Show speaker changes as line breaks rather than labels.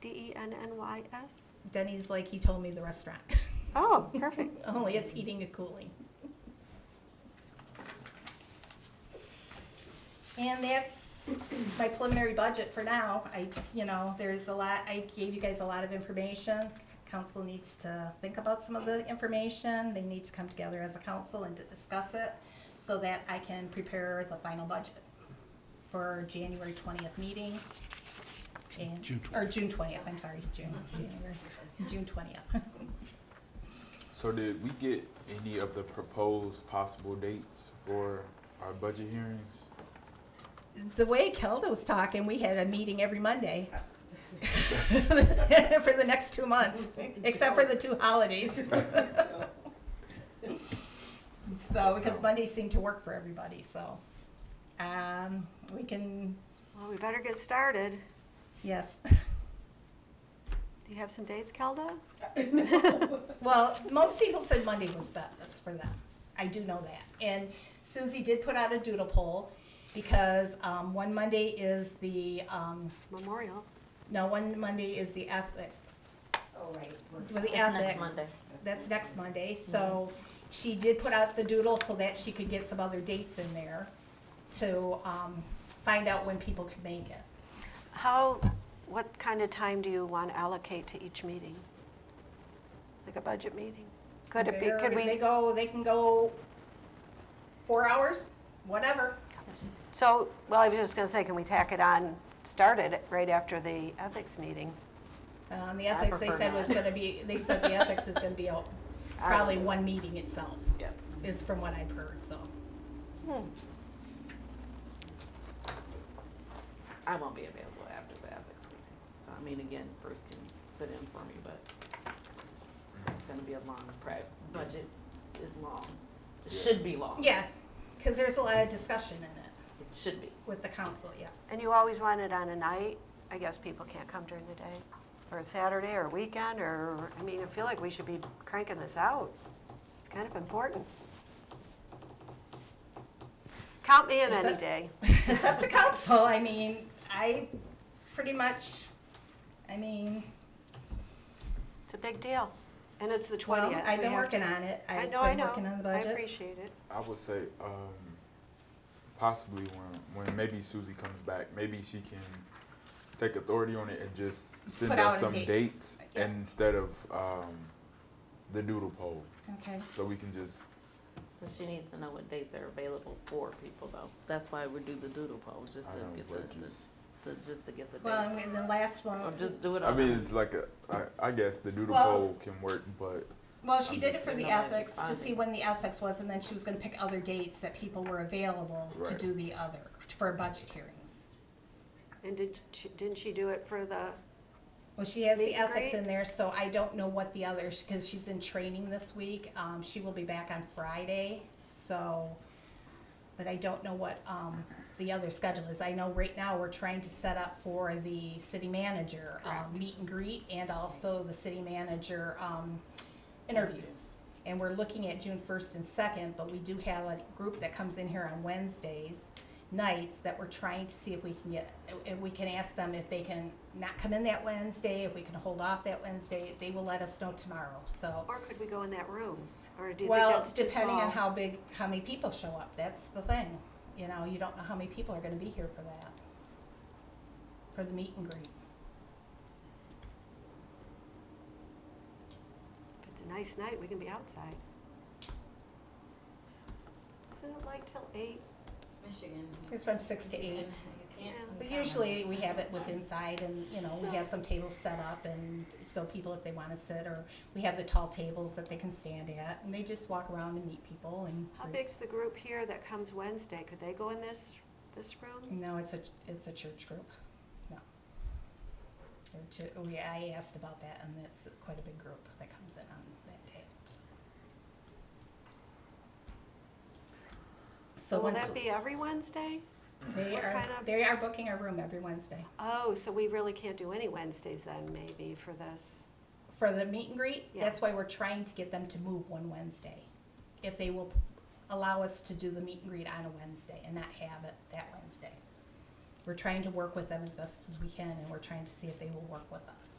D E N N Y S?
Denny's like he told me the restaurant.
Oh, perfect.
Only it's heating and cooling. And that's my preliminary budget for now. I, you know, there's a lot, I gave you guys a lot of information. Council needs to think about some of the information. They need to come together as a council and to discuss it so that I can prepare the final budget for January twentieth meeting. And-
June
Or June twentieth, I'm sorry, June, January, June twentieth.
So did we get any of the proposed possible dates for our budget hearings?
The way Kelda was talking, we had a meeting every Monday for the next two months, except for the two holidays. So, because Mondays seem to work for everybody, so, um, we can,
Well, we better get started.
yes.
Do you have some dates, Kelda?
Well, most people said Monday was best for them. I do know that. And Susie did put out a doodle poll because, um, one Monday is the, um,
Memorial.
no, one Monday is the ethics.
Oh, right.
Well, the
That's
ethics.
next Monday.
That's next Monday, so she did put out the doodle so that she could get some other dates in there to, um, find out when people could make it.
How, what kind of time do you want to allocate to each meeting? Like a budget meeting? Could it be,
They're-
could
They
we,
go, they can go four hours, whatever.
so, well, I was just going to say, can we tack it on, start it right after the ethics meeting?
Um, the
I
ethics, they
prefer
said was
not. Um,
gonna be, they said the ethics is gonna be out,
I-
probably one meeting itself,
Yep.
is from what I've heard, so.
I won't be available after the ethics meeting. So, I mean, again, Bruce can sit in for me, but it's gonna be a long prep. Budget is long. It should be long.
Yeah, cause there's a lot of discussion in it
It should be.
with the council, yes.
And you always want it on a night? I guess people can't come during the day, or a Saturday, or a weekend, or, I mean, I feel like we should be cranking this out. It's kind of important. Count me in
It's
any
a-
day.
it's up to council. I mean, I pretty much, I mean,
It's a big deal. And it's the 20th.
well, I've
We
been
have
working
to-
on it.
I
I've
know, I
been
know.
working on the
I
budget.
appreciate it.
I would say um, possibly when when maybe Susie comes back, maybe she can take authority on it and just send
Put out
us
a
some
date.
dates
Yeah.
instead of um, the doodle poll,
Okay.
so we can just
So she needs to know what dates are available for people though. That's why we do the doodle poll, just
I
to
don't know,
get
but
the,
just
the, to- just to get the
Well,
date.
and the last one,
Or just do it
I
all.
mean it's like a I, I guess the doodle
Well-
poll can work, but
well, she
I'm
did it
just
for
saying
the
nobody's
ethics, to see
responding.
when the ethics was, and then she was gonna pick other dates that people were available to
Right.
do the other, for budget hearings.
And did she, didn't she do it for the,
Well, she has
Meet
the
and
ethics
greet?
in there, so I don't know what the others, because she's in training this week. Um, she will be back on Friday, so, but I don't know what, um, the other schedule is. I know right now we're trying to set up for the city manager, um, meet and greet and also the city manager, um, interviews. And we're looking at June first and second, but we do have a group that comes in here on Wednesdays nights that we're trying to see if we can get, if we can ask them if they can not come in that Wednesday, if we can hold off that Wednesday, they will let us know tomorrow, so.
or could we go in that room? Or do you think
Well,
that's too
depending
small?
on how big, how many people show up, that's the thing, you know, you don't know how many people are gonna be here for that. For the meet and greet.
If it's a nice night, we can be outside. Isn't it like till eight?
It's Michigan.
It's from six to
You
eight.
can't-
Yeah.
But usually, we have it with inside and, you know, we have some tables set up and so people if they wanna sit or we have the tall tables that they can stand at and they just walk around and meet people and.
How
greet.
big's the group here that comes Wednesday? Could they go in this, this room?
No, it's a, it's a church group, no. They're two, we, I asked about that, and it's quite a big group that comes in on that day. So
Will
once,
that be every Wednesday?
they
what
are,
kind of-
they are booking a room every Wednesday.
Oh, so we really can't do any Wednesdays then, maybe, for this?
For the meet and greet,
Yeah.
that's why we're trying to get them to move one Wednesday. If they will allow us to do the meet and greet on a Wednesday and not have it that Wednesday. We're trying to work with them as best as we can, and we're trying to see if they will work with us.